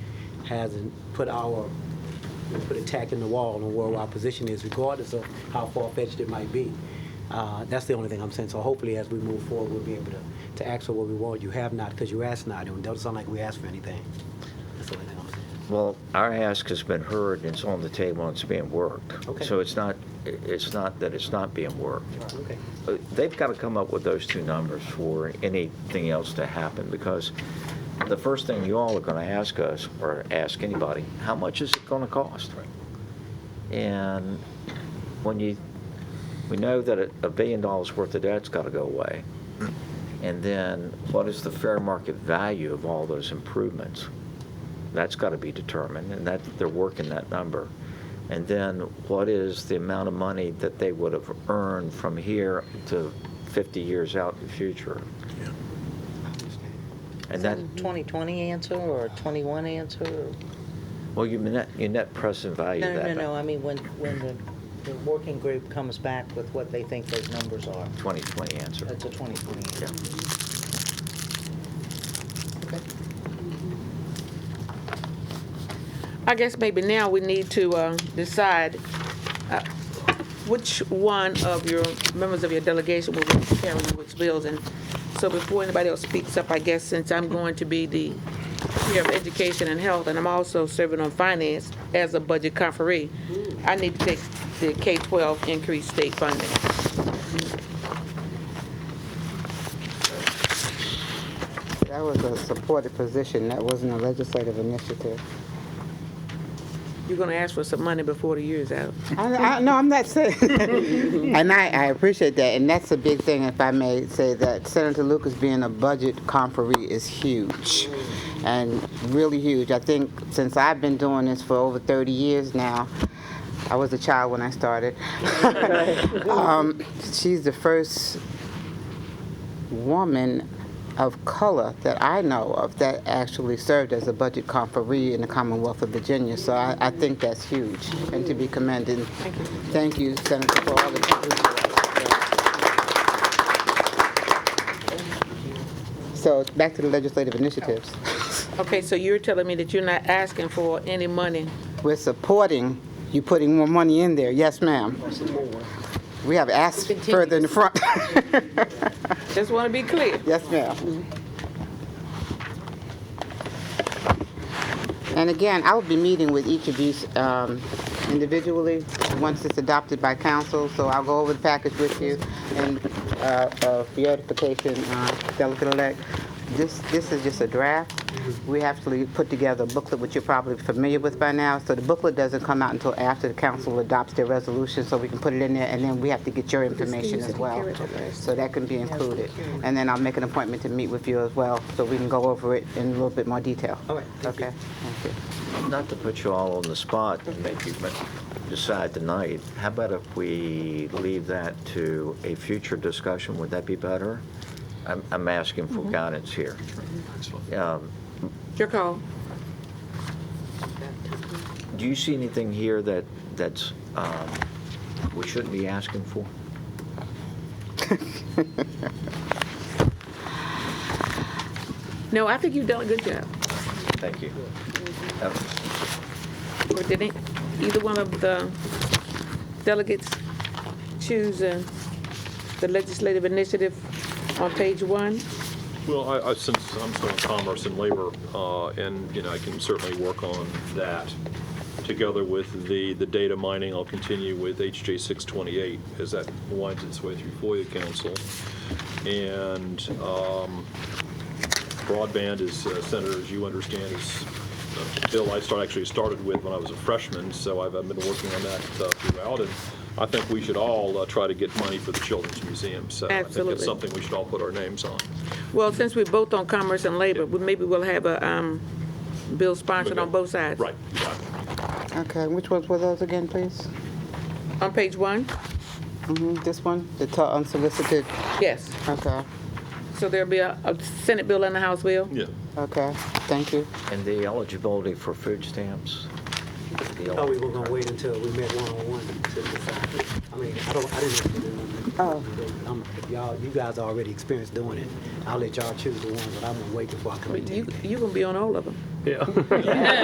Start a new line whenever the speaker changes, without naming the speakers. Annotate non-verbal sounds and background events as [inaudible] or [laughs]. hasn't put our, put a tack in the wall on where our position is, regardless of how far-fetched it might be. Uh, That's the only thing I'm saying. So hopefully, as we move forward, we'll be able to, to ask for what we want. You have not, because you asked not. It doesn't sound like we asked for anything. That's the only thing I'm saying.
Well, our ask has been heard, and it's on the table, and it's being worked.
Okay.
So it's not, it's not that it's not being worked.
All right, Okay.
Uh, They've got to come up with those two numbers for anything else to happen, because the first thing you all are going to ask us, or ask anybody, how much is it going to cost? And when you, we know that a- a billion dollars worth of debt's got to go away. And then what is the fair market value of all those improvements? That's got to be determined, and that, they're working that number. And then what is the amount of money that they would have earned from here to 50 years out in the future? And that,
Mm-hmm. 2020 answer or 21 answer? or-
well, your net, your net present value
No,
of that.
no, no, I mean, when, when the, the working group comes back with what they think those numbers are,
2020 answer.
that's a 2020
Yeah.
answer.
I guess maybe now we need to uh, decide uh, which one of your members of your delegation will be carrying which bills. And so before anybody else speaks up, I guess since I'm going to be the chair of education and health, and I'm also serving on finance as a budget conferee, I need to take the K-12 increased state funding.
That was a supported position, that wasn't a legislative initiative.
You're going to ask for some money before the year's out.
I, I, no, I'm not saying, and I, I appreciate that, and that's a big thing, if I may say that Senator Lucas being a budget conferee is huge, and really huge. I think since I've been doing this for over 30 years now, I was a child when I started. [laughs] um, she's the first woman of color that I know of that actually served as a budget conferee in the Commonwealth of Virginia. So I, I think that's huge and to be commended. Thank you. Thank you, Senator, for all that you do. So back to the legislative initiatives.
Okay, so you're telling me that you're not asking for any money?
We're supporting you putting more money in there. Yes, ma'am. We have asked further in the front. [laughs]
Just want to be clear.
Yes, ma'am. And again, I will be meeting with each of these um, individually, once it's adopted by council, so I'll go over the package with you. And uh, uh, for your notification, uh, Delegate-elect, this, this is just a draft. We actually put together a booklet, which you're probably familiar with by now. So the booklet doesn't come out until after the council adopts their resolution, so we can put it in there, and then we have to get your information as well. So that can be included. And then I'll make an appointment to meet with you as well, so we can go over it in a little bit more detail.
All right, thank you.
Okay, thank you.
Not to put you all on the spot and make you decide tonight, how about if we leave that to a future discussion? Would that be better? I'm, I'm asking for
Mm-hmm.
guidance here. Um,
Your call.
Do you see anything here that, that's, um, we shouldn't be asking for?
No, I think you've done a good job.
Thank you. Uh,
Or did it- either one of the delegates choose uh, the legislative initiative on page one?
Well, I, I, since I'm still in commerce and labor, uh, and, you know, I can certainly work on that. Together with the, the data mining, I'll continue with HJ 628 as that winds its way through FOIA Council. And, um, broadband is, uh, Senator, as you understand, is a bill I start, actually started with when I was a freshman, so I've, I've been working on that uh, throughout. And I think we should all uh, try to get money for the Children's Museum, so I think
Absolutely.
it's something we should all put our names on.
Well, since we're both on commerce and labor, we- maybe we'll have a um, bill sponsored on both sides.
Right, right.
Okay, which ones were those again, please?
On page one?
hmm this one, the t- unsolicited,
Yes.
okay,
So there'll be a a Senate bill and a House bill?
Yeah.
okay, thank you.
And the eligibility for food stamps?
I thought Oh, we were gonna wait until we met one-on-one to decide. I mean, I don't, I didn't.
Oh.
I'm- Y'all, you guys are already experienced doing it. I'll let y'all choose the ones, but I'm gonna wait before I commit to
You,
anything.
you gonna be on all of them.